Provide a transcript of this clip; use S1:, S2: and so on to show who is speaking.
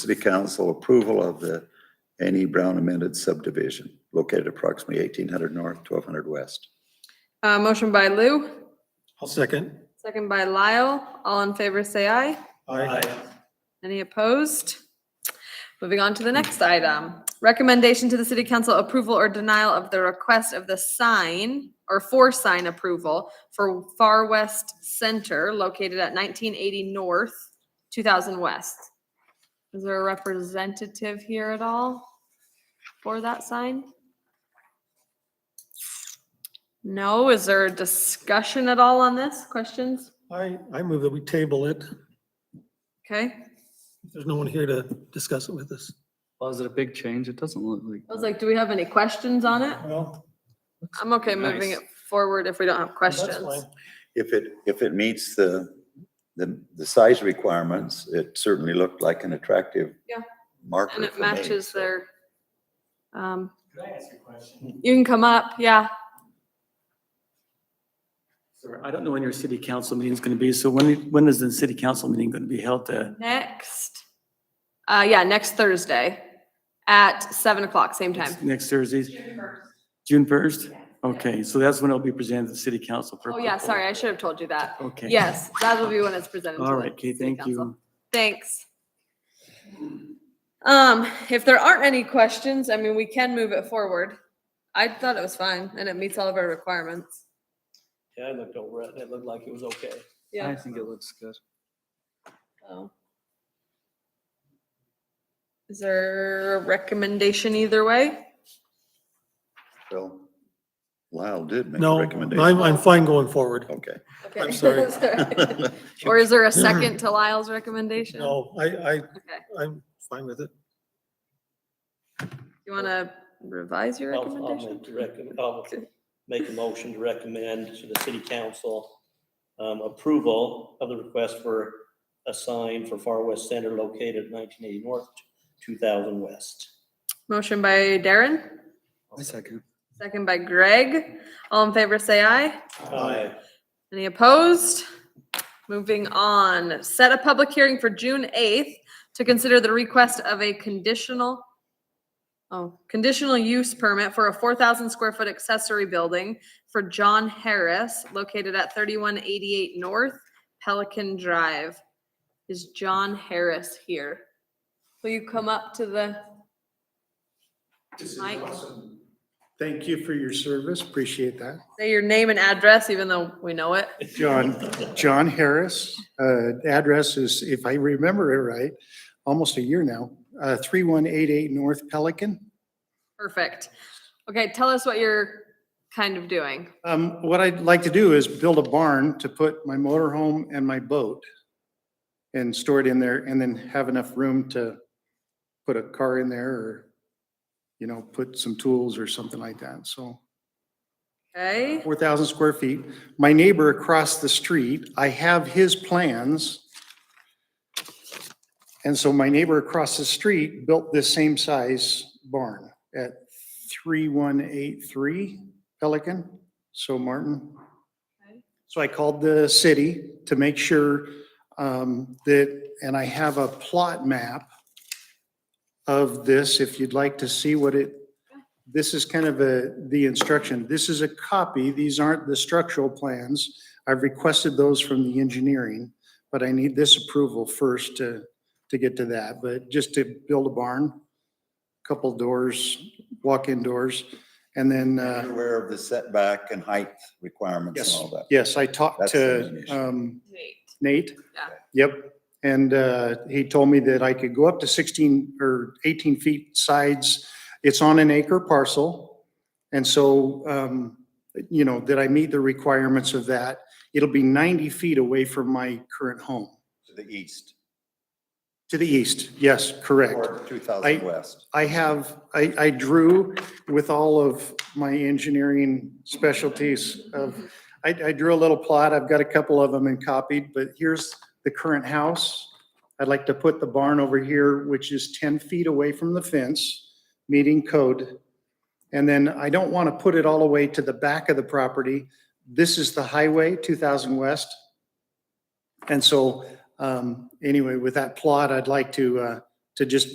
S1: City Council approval of the N.E. Brown amended subdivision located approximately eighteen hundred north, twelve hundred west.
S2: Uh, motion by Lou,
S3: I'll second.
S2: second by Lyle. All in favor, say aye.
S3: Aye.
S2: Any opposed? Moving on to the next item. Recommendation to the city council approval or denial of the request of the sign or for sign approval for Far West Center located at nineteen eighty North, two thousand West. Is there a representative here at all for that sign? No, is there a discussion at all on this? Questions?
S3: I, I move that we table it.
S2: Okay,
S3: There's no one here to discuss it with us.
S4: Well, is it a big change? It doesn't look like.
S2: I was like, do we have any questions on it?
S3: Well,
S2: I'm okay moving
S4: Nice.
S2: it forward if we don't have
S3: that's
S2: questions.
S3: fine.
S1: If it, if it meets the, the, the size requirements, it certainly looked like an attractive
S2: Yeah.
S1: marker
S2: And it
S1: for me,
S2: matches
S1: so.
S2: their, um,
S5: Could I ask you a question?
S2: you can come up, yeah.
S5: Sir, I don't know when your city council meeting is going to be, so when, when is the city council meeting going to be held uh, to?
S2: Next, uh, yeah, next Thursday at seven o'clock, same time.
S5: Next Thursday? June first. June first? Okay, so that's when it'll be presented to the city council for.
S2: Oh, yeah,
S5: approval.
S2: sorry, I should have told you that.
S5: Okay.
S2: Yes, that will be when it's presented. to
S5: All
S2: the
S5: right, okay,
S2: city
S5: thank
S2: council.
S5: you.
S2: Thanks. Um, if there aren't any questions, I mean, we can move it forward. I thought it was fine and it meets all of our requirements.
S6: Yeah, I looked over it, and it looked like it was okay.
S4: I
S2: Yeah.
S4: think it looks good.
S2: so. Is there a recommendation either way?
S1: Well, Lyle did make a
S3: No,
S1: recommendation.
S3: I'm, I'm fine going forward.
S1: Okay.
S2: Okay,
S3: I'm sorry.
S2: that's all right. Or is there a second to Lyle's recommendation?
S3: No, I, I,
S2: Okay,
S3: I'm fine with it.
S2: you want to revise your
S6: I'll- I'll
S2: recommendation?
S6: make the um, recom- I'll
S2: Okay.
S6: Make a motion to recommend to the city council um, approval of the request for a sign for Far West Center located at nineteen eighty north, two thousand west.
S2: Motion by Darren,
S4: I second.
S2: second by Greg. All in favor, say aye.
S6: Aye.
S2: Any opposed? Moving on, set a public hearing for June eighth to consider the request of a conditional, oh, conditional use permit for a four thousand square foot accessory building for John Harris located at thirty-one eighty-eight North Pelican Drive. Is John Harris here? Will you come up to the,
S7: This is
S2: Mike?
S7: awesome. Thank you for your service. Appreciate that.
S2: say your name and address, even though we know it?
S7: John, John Harris, uh, address is, if I remember it right, almost a year now, uh, 3188 North Pelican.
S2: Perfect. Okay, tell us what you're kind of doing.
S7: Um, What I'd like to do is build a barn to put my motorhome and my boat and store it in there and then have enough room to put a car in there or, you know, put some tools or something like that. So
S2: Okay?
S7: 4,000 square feet. My neighbor across the street, I have his plans. And so my neighbor across the street built this same size barn at 3183 Pelican, so Martin.
S2: Okay.
S7: So I called the city to make sure um, that, and I have a plot map of this, if you'd like to see what it this is kind of a, the instruction. This is a copy. These aren't the structural plans. I've requested those from the engineering, but I need this approval first to, to get to that. But just to build a barn, couple doors, walk-in doors, and then,
S1: You're
S7: uh,
S1: Aware of the setback and height requirements
S7: Yes.
S1: and all that.
S7: yes, I talked
S1: That's the main
S7: to
S1: issue.
S7: um,
S2: Wait.
S7: Nate.
S2: Yeah.
S7: Yep. And uh, he told me that I could go up to 16 or 18 feet sides. It's on an acre parcel. And so, um, you know, that I meet the requirements of that. It'll be 90 feet away from my current home.
S1: To the east,
S7: To the east, yes, correct.
S1: or two thousand
S7: I-
S1: west.
S7: I have, I, I drew with all of my engineering specialties of, I, I drew a little plot. I've got a couple of them and copied, but here's the current house. I'd like to put the barn over here, which is ten feet away from the fence, meeting code. And then I don't want to put it all the way to the back of the property. This is the highway, two thousand west. And so, um, anyway, with that plot, I'd like to, uh, to just